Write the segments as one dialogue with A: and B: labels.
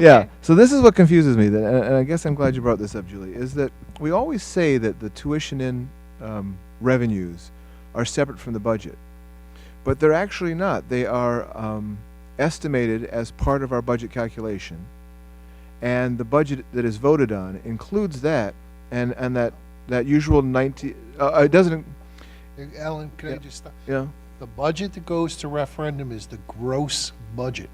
A: yeah. So this is what confuses me. That, and and I guess I'm glad you brought this up, Julie. Is that we always say that the tuition in um, revenues are separate from the budget, but they're actually not. They are um, estimated as part of our budget calculation, and the budget that is voted on includes that, and and that that usual ninety. Uh, uh, it doesn't.
B: Alan, can I
A: Yeah.
B: just stop?
A: Yeah.
B: The budget that goes to referendum is the gross budget.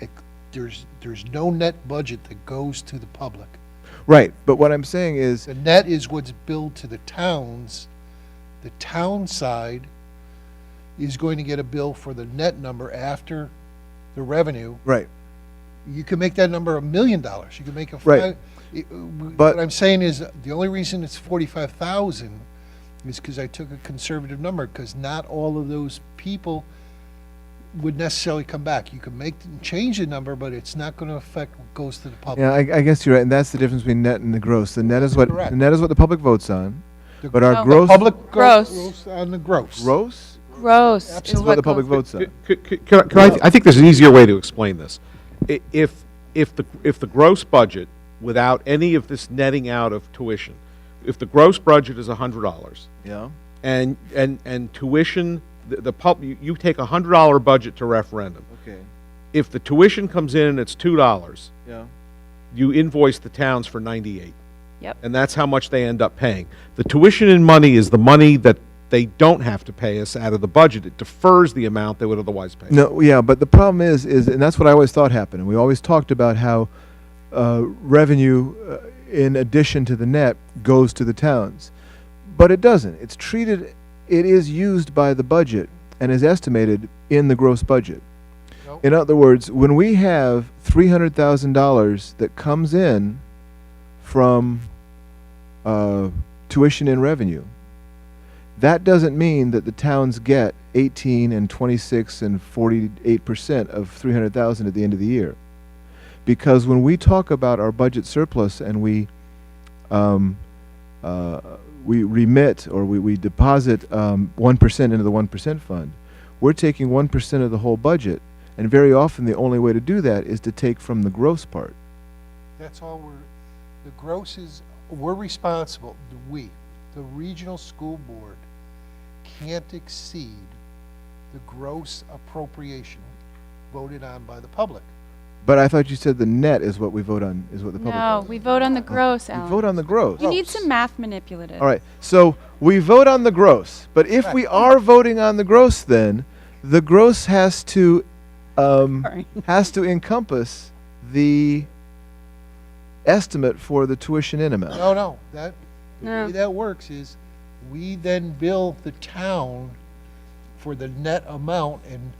B: It, there's, there's no net budget that goes to the public.
A: Right. But what I'm saying is,
B: The net is what's billed to the towns. The town side is going to get a bill for the net number after the revenue.
A: right.
B: You can make that number a million dollars. You can make a
A: Right.
B: five. it- What
A: But-
B: I'm saying is, the only reason it's forty-five thousand is because I took a conservative number, because not all of those people would necessarily come back. You can make, change the number, but it's not gonna affect what goes to the
A: Yeah,
B: public.
A: I, I guess you're right, and that's the difference between net and the gross. The net is what
B: Correct.
A: the net is what the public votes on,
B: The
A: but
C: No.
A: our
C: The
A: gross
B: Public
C: Gross.
B: gross on the gross.
A: gross
C: Gross. is
A: is what the public
C: goes-
A: votes on.
D: C- c- Can I- can I, I think there's an easier way to explain this. I- If, if the, if the gross budget, without any of this netting out of tuition, if the gross budget is hundred dollars,
A: Yeah.
D: and, and, and tuition, the, the pub, you, you take a hundred dollar budget to referendum.
A: Okay.
D: If the tuition comes in and it's two dollars,
A: Yeah.
D: you invoice the towns for ninety-eight.
C: Yep.
D: And that's how much they end up paying. The tuition in money is the money that they don't have to pay us out of the budget. It defers the amount they would otherwise pay.
A: No. Yeah. But the problem is, is and that's what I always thought happened. And we always talked about how uh, revenue, uh, in addition to the net, goes to the towns, but it doesn't. It's treated. It is used by the budget and is estimated in the gross budget.
B: No.
A: In other words, when we have three hundred thousand dollars that comes in from uh, tuition and revenue, that doesn't mean that the towns get eighteen and twenty-six and forty-eight percent of three hundred thousand at the end of the year, because when we talk about our budget surplus and we um, uh, we remit or we, we deposit um, 1% into the 1% fund, we're taking 1% of the whole budget. And very often, the only way to do that is to take from the gross part.
B: That's all we're, the gross is, we're responsible, the we, the regional school board can't exceed the gross appropriation voted on by the public.
A: But I thought you said the net is what we vote on, is what the public
C: No,
A: votes
C: we vote on the gross,
A: on.
C: Alan.
A: We vote on the gross.
C: You need some math manipulative.
A: All right. So we vote on the gross. But if we are voting on the gross, then the gross has to um,
C: Sorry.
A: has to encompass the estimate for the tuition in amount.
B: No, no, that, the
C: No.
B: way that works is, we then bill the town for the net amount, and,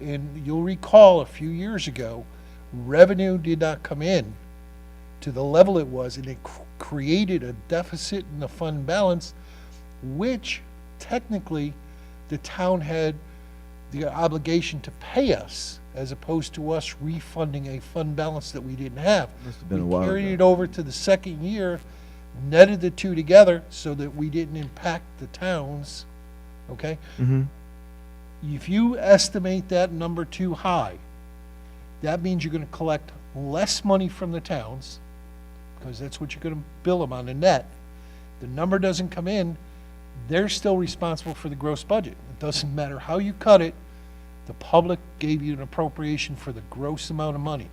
B: and you'll recall a few years ago, revenue did not come in to the level it was, and it cr- created a deficit in the fund balance, which technically, the town had the obligation to pay us, as opposed to us refunding a fund balance that we didn't have.
A: Must have been a while
B: We carried
A: ago.
B: it over to the second year, netted the two together so that we didn't impact the towns, okay?
A: Mhm.
B: If you estimate that number too high, that means you're gonna collect less money from the towns, because that's what you're gonna bill them on the net. The number doesn't come in, they're still responsible for the gross budget. It doesn't matter how you cut it, the public gave you an appropriation for the gross amount of money.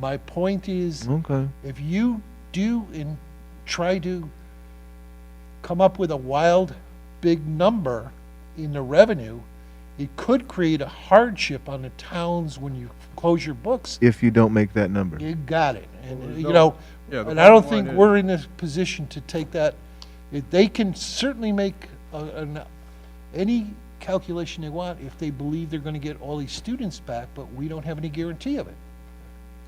B: My point is,
A: Okay.
B: if you do and try to come up with a wild big number in the revenue, it could create a hardship on the towns when you close your books.
A: If you don't make that number.
B: You got it. And, you
D: no-
B: know,
D: yeah, the
B: and I don't
D: bottom
B: think
D: line is-
B: we're in a position to take that. If They can certainly make a- an, any calculation they want if they believe they're gonna get all these students back, but we don't have any guarantee of it.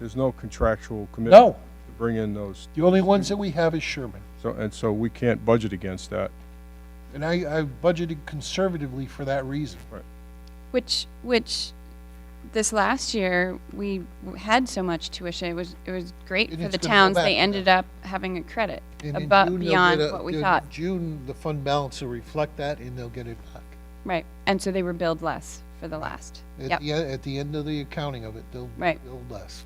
E: There's no contractual commitment
B: No,
E: to bring in those,
B: the only ones that we have is Sherman.
E: so, and so we can't budget against that.
B: And I, I budgeted conservatively for that reason.
C: Which, which, this last year, we w- had so much tuition, it was, it was great
B: And
C: for the
B: it's gonna go
C: towns.
B: back,
C: They
B: yeah.
C: ended up having a credit
B: And in
C: above,
B: June, they'll
C: beyond
A: uh,
B: get a-
C: what we
B: in
C: thought.
B: June, the fund balance will reflect that and they'll get it back.
C: Right, and so they were billed less for the last.
B: At
C: Yep,
B: the, e- at the end of the accounting of it, they'll.
C: Right.
B: They'll less.